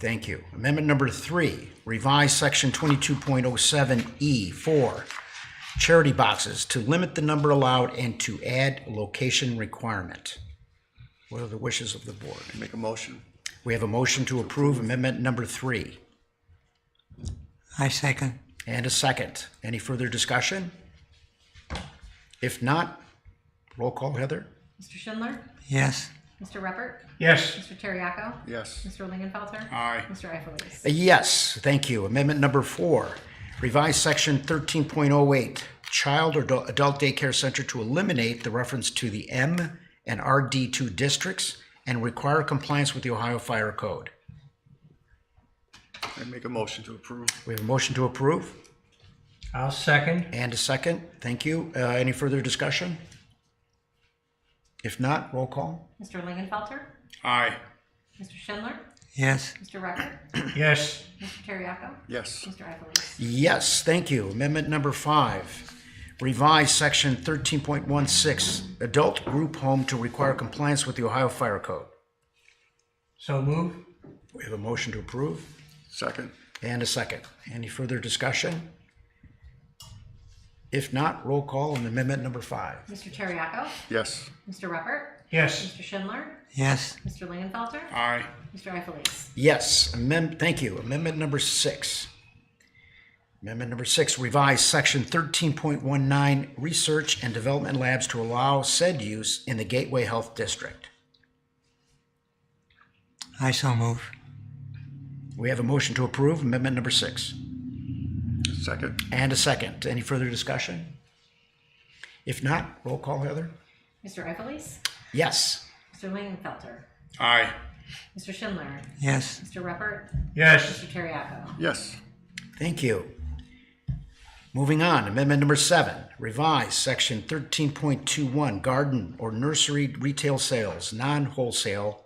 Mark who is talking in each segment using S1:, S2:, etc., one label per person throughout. S1: Thank you. Amendment number three, revise section 22.07E4, E charity boxes to limit the number allowed and to add location requirement. What are the wishes of the board?
S2: Make a motion.
S1: We have a motion to approve amendment number three
S3: I second.
S1: and a second. Any further discussion? If not, roll call, Heather?
S4: Mr. Schindler?
S3: Yes.
S4: Mr. Reppert?
S5: yes,
S4: Mr. Terriaco?
S2: Yes.
S4: Mr. Lingenfelter?
S2: Aye.
S4: Mr. Ifelis?
S1: A Yes, thank you. Amendment number four, revise section 13.08, child or adult- adult daycare center to eliminate the reference to the M and RD2 districts and require compliance with the Ohio Fire Code.
S2: I make a motion to approve.
S1: We have a motion to approve
S5: I'll second,
S1: and a second. Thank you. Uh, Any further discussion? If not, roll call.
S4: Mr. Lingenfelter?
S2: Aye.
S4: Mr. Schindler?
S3: Yes.
S4: Mr. Reppert?
S5: yes,
S4: Mr. Terriaco?
S2: Yes.
S4: Mr. Ifelis?
S1: Yes, thank you. Amendment number five, revise section 13.16, adult group home to require compliance with the Ohio Fire Code.
S5: so move,
S1: We have a motion to approve
S2: Second.
S1: and a second. Any further discussion? If not, roll call on amendment number five.
S4: Mr. Terriaco?
S2: Yes.
S4: Mr. Reppert?
S5: yes,
S4: Mr. Schindler?
S3: Yes.
S4: Mr. Lingenfelter?
S2: Aye.
S4: Mr. Ifelis?
S1: Yes, amend, thank you. Amendment number six. Amendment number six, revise section 13.19, research and development labs to allow said use in the Gateway Health District.
S3: I so move.
S1: We have a motion to approve amendment number six
S2: Second.
S1: and a second. Any further discussion? If not, roll call, Heather.
S4: Mr. Ifelis?
S1: Yes.
S4: Mr. Lingenfelter?
S2: Aye.
S4: Mr. Schindler?
S3: Yes.
S4: Mr. Reppert?
S5: yes,
S4: Mr. Terriaco?
S2: Yes.
S1: Thank you. Moving on, amendment number seven, revise section thirteen point two one, garden or nursery retail sales, non-wholesale,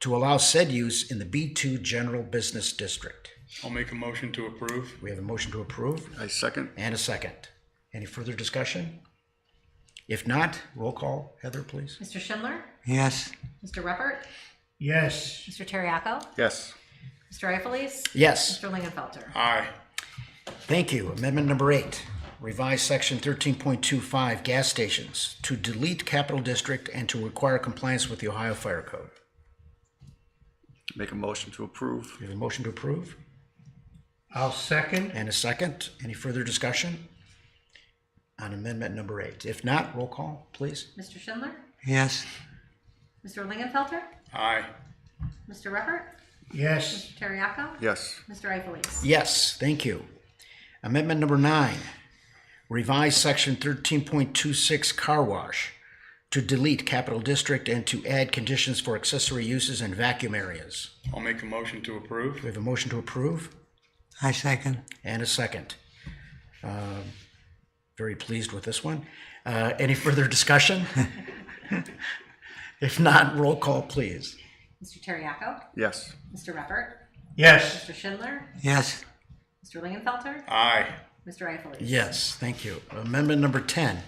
S1: to allow said use in the B two general business district.
S6: I'll make a motion to approve.
S1: We have a motion to approve
S2: I second.
S1: and a second. Any further discussion? If not, roll call, Heather, please.
S4: Mr. Schindler?
S3: Yes.
S4: Mr. Reppert?
S5: yes,
S4: Mr. Terriaco?
S2: Yes.
S4: Mr. Ifelis?
S1: Yes,
S4: Mr. Lingenfelter?
S6: Aye.
S1: thank you. Amendment number eight, revise section thirteen point two five, gas stations, to delete capital district and to require compliance with the Ohio Fire Code.
S2: Make a motion to approve.
S1: We have a motion to approve
S5: I'll second,
S1: and a second. Any further discussion on amendment number eight? If not, roll call, please.
S4: Mr. Schindler?
S3: Yes.
S4: Mr. Lingenfelter?
S6: Aye.
S4: Mr. Reppert?
S5: yes,
S4: Terriaco?
S2: Yes.
S4: Mr. Ifelis?
S1: Yes, thank you. Amendment number nine, revise section thirteen point two six car wash to delete capital district and to add conditions for accessory uses and vacuum areas.
S6: I'll make a motion to
S1: We
S6: approve.
S1: have a motion to approve
S3: I second.
S1: and a second. Um, Very pleased with this one. Uh, Any further discussion? If not, roll call, please.
S4: Mr. Terriaco?
S2: Yes.
S4: Mr. Reppert?
S5: yes,
S4: Mr. Schindler?
S3: Yes.
S4: Mr. Lingenfelter?
S6: Aye.
S4: Mr. Ifelis?
S1: Yes, thank you. Amendment number 10,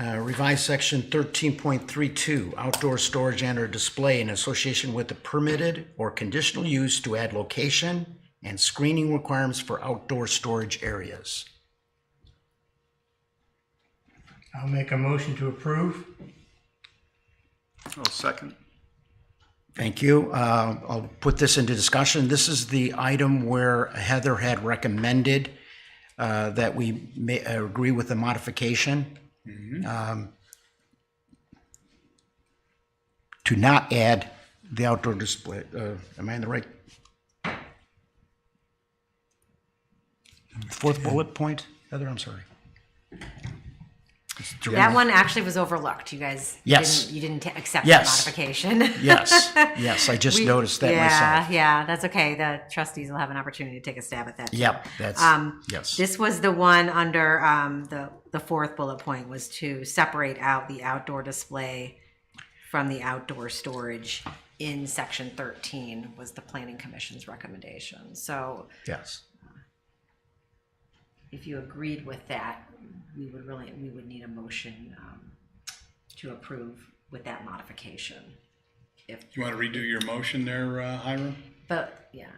S1: uh, revise section 13.32, outdoor storage and/or display in association with the permitted or conditional use to add location and screening requirements for outdoor storage areas.
S5: I'll make a motion to approve,
S2: I'll Oh, second.
S1: Thank you. Uh, I'll put this into discussion. This is the item where Heather had recommended uh, that we may uh, agree with the modification um, to not add the outdoor display. uh, Am I in the right? Fourth bullet point? Heather, I'm sorry. It's
S7: That
S1: direct-
S7: one actually was overlooked. You guys
S1: Yes.
S7: didn't, you didn't ta- accept
S1: Yes.
S7: the modification.
S1: Yes, yes, I just
S7: We-
S1: noticed that
S7: yeah,
S1: myself.
S7: Yeah, that's okay. The trustees will have an opportunity to take a stab at that.
S1: Yep, that's,
S7: Um,
S1: yes.
S7: This was the one under um, the the fourth bullet point was to separate out the outdoor display from the outdoor storage in section 13 was the planning commission's recommendation. So
S1: Yes.
S7: if you agreed with that, we would really, we would need a motion um, to approve with that modification. If
S6: You want to redo your motion there, uh, Hiram?
S4: But, yeah.